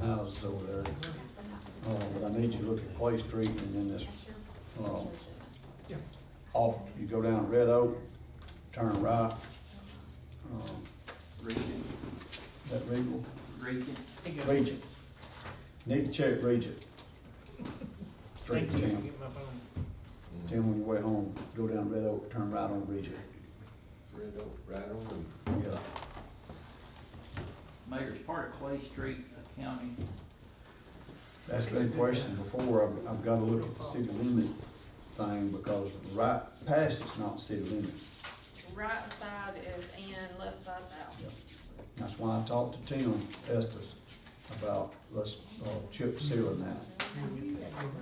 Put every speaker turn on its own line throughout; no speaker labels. houses over there. Uh, but I need you to look at Clay Street and then this, um, off, you go down Red Oak, turn right. um,
Regent,
Is that Regal?
Regent.
Regent. Need to check Regent. Straight
Thank
to
you.
town.
Get my phone.
Then on your way home, go down Red Oak, turn right on Regent.
Red Oak, right on.
Yeah.
Mayor's part of Clay Street, a county.
That's been questioned before, I've, I've gotta look at the city limit thing, because right past it's not city limit.
Right side is in, left side's out.
That's why I talked to Tim Estes about, let's, uh, chip sealing that.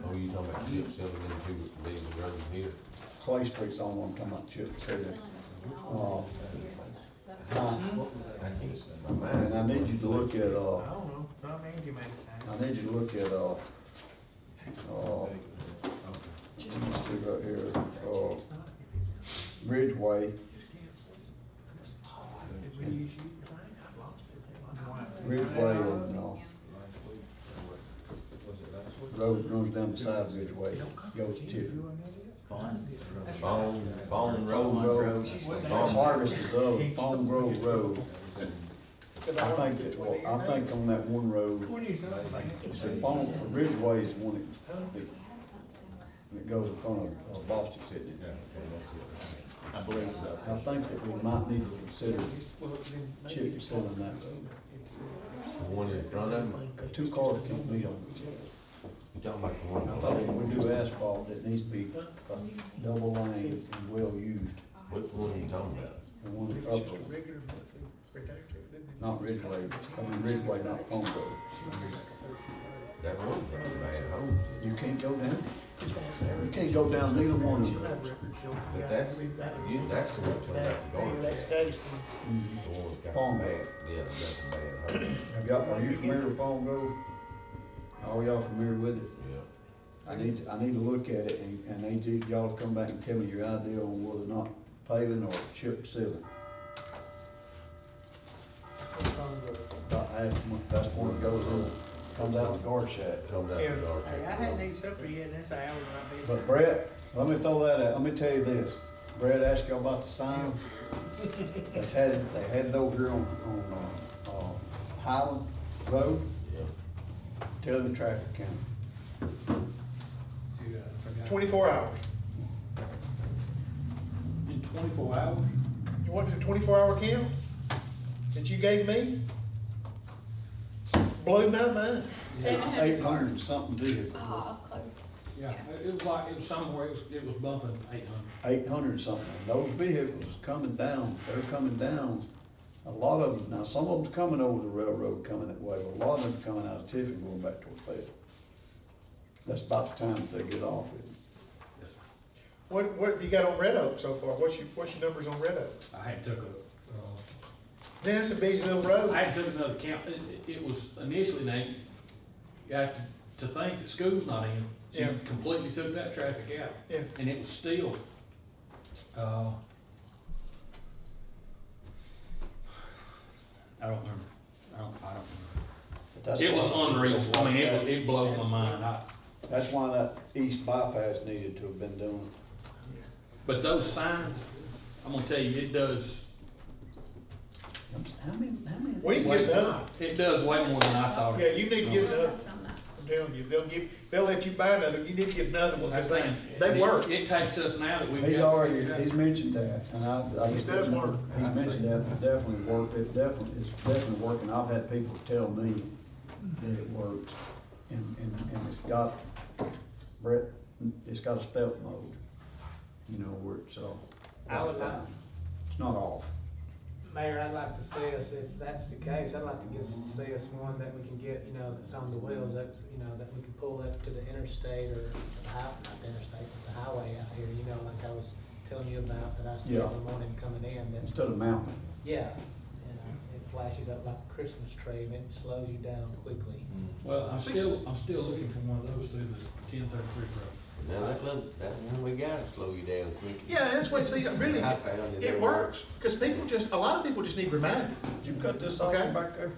Oh, you talking about chip sealing them two being around here?
Clay Street's the only one I'm talking about chip sealing. Uh,
That's
uh,
I can't say my
And I need you to look at,
I
uh,
don't know, Tom Angie made it sound.
I need you to look at, uh, uh, let's see right here, uh, Ridgeway, Ridgeway and, uh,
Was it last week?
road runs down beside Ridgeway, goes to Tiffany.
Bond.
Bone, Bone Road.
Road.
Bone-
Harvest is up, Bone Grove Road. I think that, well, I think on that one road,
Twenty something.
it's the Bone, Ridgeway is the one that, that- that goes in front of uh, Boston, isn't
Yeah,
it?
okay, that's it.
I believe so.
I think that we might need to consider chip sealing that road.
The one in front of them,
Two cars can't meet on each other.
you talking about the one?
I thought when we do asphalt, it needs to be a double lane and well used,
What one you talking about?
and one upper, not Ridgeway, I mean Ridgeway, not Bone Grove.
That road, bad home.
You can't go down, you can't go down neither one of them.
But that's, you, that's the one turned out to go.
That's
The
Stacy.
Mhm.
one's got
Bone.
bad, yeah, that's a bad home.
Have y'all, are you familiar with Farm Grove? Are y'all familiar with it?
Yeah.
I need, to- I need to look at it and, and I need to- y'all to come back and tell me your idea on whether or not paving or chip sealing. About half, a month, that's the one that goes in, comes out the guard shack.
Comes out
Yeah,
the door.
I hadn't eaten supper yet, and that's an hour I've been.
But Brett, let me throw that out, let me tell you this, Brett asked y'all about the sign. They had, it- they had it over here on, on, uh, uh, Highland Road,
Yeah.
tell them traffic count.
Twenty-four hours.
In twenty-four hours?
You want the twenty-four hour count that you gave me? Blew my mind.
Seven
Eight
hundred.
hundred and something vehicles.
Oh, I was close.
Yeah, it- it was like, it was somewhere, it was, it was bumping eight hundred.
eight hundred something, those vehicles is coming down, they're coming down. A lot of them, now some of them's coming over the railroad coming that way, but a lot of them coming out of Tiffin going back toward Fayetteville. That's about the time that they get off it.
What, what have you got on Red Oak so far? What's your, what's your numbers on Red Oak?
I had took a,
Man, that's a busy little
uh, I
road.
had took another count, it, it- it was initially named, you have to, to think that school's not in. so you
Yeah.
Completely took that traffic out.
Yeah.
And it was still, uh, I don't remember, I don't, I don't
But that's
remember. It
why-
was unreal, I mean, it was, it blew my mind, I,
That's why that east bypass needed to have been done.
but those signs, I'm gonna tell you, it does,
I'm s- How many, how many? of
We
these-
can get another.
it does way more than I thought it
Yeah, you need to get another.
That's on that.
I'm telling you, they'll give, they'll let you buy another. You need to get another one because they, they
It-
work.
It takes us now that we've.
He's
got it
already,
figured out.
he's mentioned that, and I, I
He's
just.
done work.
He's mentioned that, it definitely worked, it definitely, it's definitely working, I've had people tell me that it works, and, and, and it's got, Brett, it's got a stealth mode, you know, where it's, uh.
I would like-
It's not off,
Mayor, I'd like to see us, if that's the case, I'd like to get, see us one that we can get, you know, that's on the wheels, that, you know, that we can pull up to the interstate or the high, not the interstate, but the highway out here, you know, like I was telling you about, that I see in
Yeah.
the morning coming in, that's,
instead of mounting,
yeah. you know, It flashes up like a Christmas tree and it slows you down quickly.
Well, I'm still, I'm still looking for one of those through the ten thirty-three road.
Now, that one, that one we gotta slow you down quick.
Yeah, that's what, see, really,
I found it.
it works because people just, a lot of people just need reminding.
did you cut this off
Okay.
back there?